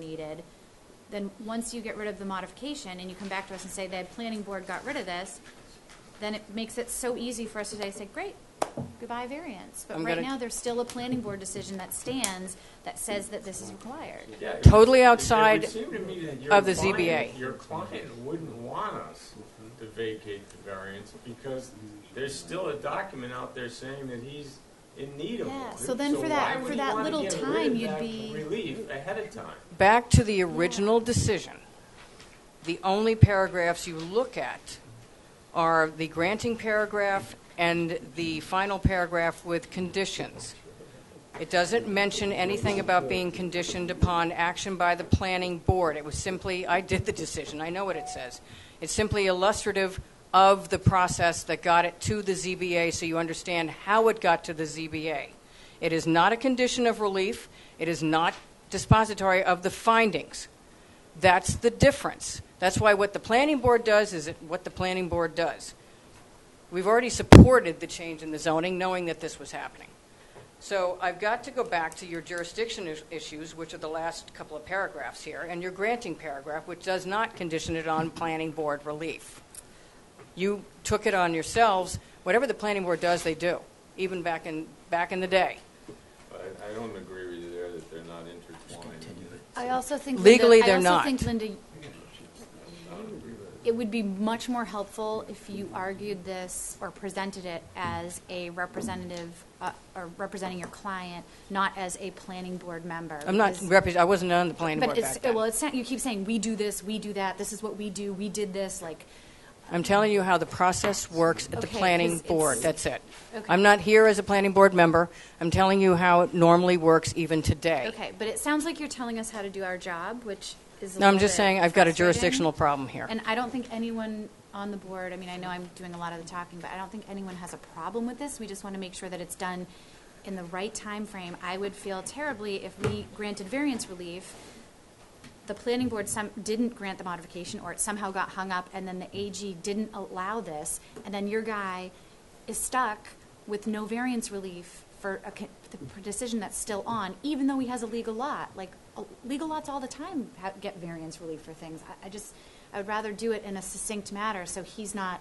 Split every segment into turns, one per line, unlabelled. deleted, then once you get rid of the modification and you come back to us and say the planning board got rid of this, then it makes it so easy for us today to say, great, goodbye variance. But
I'm
right
gonna-
now, there's still a planning board decision that stands that says that this is required.
Yeah, it-
Totally
it- it would
outside
seem to me that your
of the
client-
ZBA.
Your client wouldn't want us to vacate the variance because there's still a document out there saying that he's in need of one.
Yeah, so then for that-
why would
for
he
that
wanna
little
get rid of
time, you'd
that
be-
Relief ahead of time.
Back to the original decision. The only paragraphs you look at are the granting paragraph and the final paragraph with conditions. It doesn't mention anything about being conditioned upon action by the planning board. It was simply, I did the decision, I know what it says. It's simply illustrative of the process that got it to the ZBA, so you understand how it got to the ZBA. It is not a condition of relief, it is not dispository of the findings. That's the difference. That's why what the planning board does is it- what the planning board does. We've already supported the change in the zoning, knowing that this was happening. So I've got to go back to your jurisdiction is- issues, which are the last couple of paragraphs here, and your granting paragraph, which does not condition it on planning board relief. You took it on yourselves. Whatever the planning board does, they do, even back in, back in the day.
But I, I don't agree with you there that they're not intertwined.
I also think.
Linda- Legally, they're
I
not.
also think, Linda, it would be much more helpful if you argued this or presented it as a representative, uh, or representing your client, not as a planning board member.
I'm not,
because-
repre- I wasn't on the planning board
But it's, uh,
back then.
well, it's, not- you keep saying, we do this, we do that, this is what we do, we did this, like,
I'm telling you how the process works at the
Okay, 'cause
planning
it's-
board, that's it.
Okay.
I'm not here as a planning board member, I'm telling you how it normally works even today.
okay, but it sounds like you're telling us how to do our job, which is a
No, I'm
little
just
bit
saying, I've got a
frustrating.
jurisdictional problem here.
And I don't think anyone on the board, I mean, I know I'm doing a lot of the talking, but I don't think anyone has a problem with this. We just want to make sure that it's done in the right time frame. I would feel terribly if we granted variance relief, the planning board some, didn't grant the modification, or it somehow got hung up, and then the AG didn't allow this, and then your guy is stuck with no variance relief for a con- the decision that's still on, even though he has a legal lot. Like, uh, legal lots all the time ha- get variance relief for things. I, I just, I would rather do it in a succinct manner, so he's not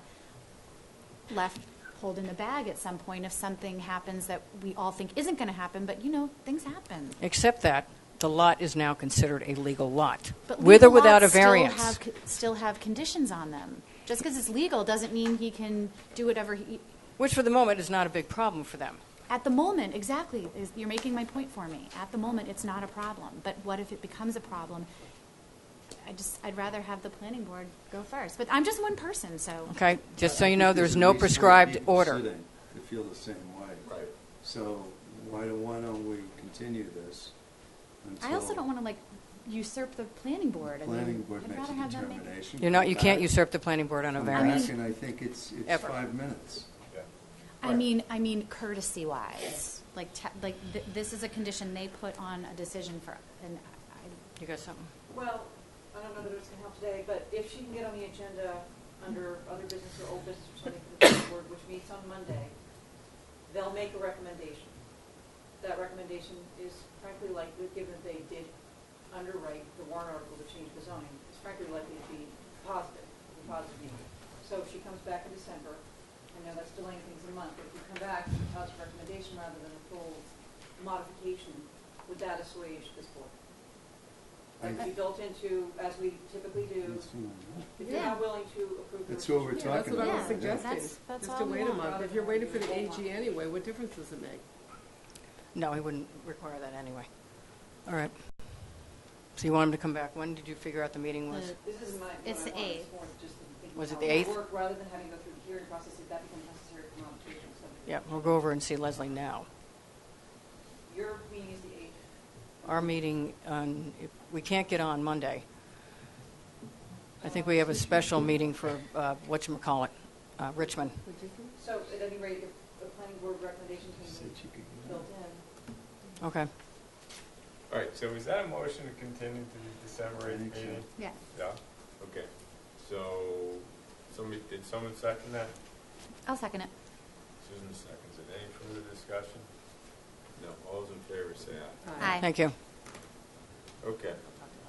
left holding the bag at some point if something happens that we all think isn't gonna happen, but you know, things happen.
Except that the lot is now considered a legal lot,
But
with or
legal
without a
lots still
variance.
have co- Still have conditions on them. Just because it's legal doesn't mean he can do whatever he,
Which for the moment is not a big problem for them.
at the moment, exactly, is- you're making my point for me. At the moment, it's not a problem, but what if it becomes a problem? I just, I'd rather have the planning board go first, but I'm just one person, so.
Okay, just so
I
you
think
know, there's
a
no
reason why
prescribed
people
order.
sitting To feel the same way.
Right.
So why don't, why don't we continue this until?
I also don't want to like usurp the planning board. I mean,
Planning board
I'd
makes a
rather have them make-
determination.
You're not, you
come
can't
back,
usurp the planning board on a
come
variance.
back, And I think it's, it's
Ever.
five minutes.
I mean, I mean courtesy wise, like, te- like th- this is a condition they put on a decision for, and I,
You got something?
Well, I don't know that it's gonna help today, but if she can get on the agenda under other business or old business or something for the planning board, which meets on Monday, they'll make a recommendation. That recommendation is frankly likely, given that they did underwrite the warrant article to change the zoning, it's frankly likely to be positive, a positive meeting. So if she comes back in December, I know that's delaying things a month, but if you come back with a positive recommendation rather than a full modification, would that assuage this board? That would be built into, as we typically do,
It's, uh,
if you're
Yeah.
not willing to approve. the
That's what we're talking
restriction.
Yeah, that's what I
about
was
it.
suggesting,
That's-
is
that's
to
all we
wait a
want.
month. If you're waiting for the AG anyway, what difference does it make?
No, he wouldn't require that anyway. All right. So you want him to come back? When did you figure out the meeting was?
The-
This is my, what I
It's the
wanted,
eighth.
it's more just thinking
Was it
how
the
it
eighth?
would work, rather than having to go through the hearing process, if that becomes necessary for modification. so-
Yeah, we'll go over and see Leslie now.
Your meeting is the eighth.
Our meeting, on if we can't get on Monday. I think we have a special meeting for, uh, whatchamacallit, uh, Richmond.
Would you think?
So at any rate, if the planning board recommendation can
Said
be
you could get
built in.
Okay.
All right, so is that a motion to continue to the December
I think
eighth
so.
meeting?
yeah.
Yeah, okay. So, somebody, did someone second that?
I'll second it.
Susan seconds it. Any further discussion? No, all those in favor say aye.
Aye.
Thank you.
Okay,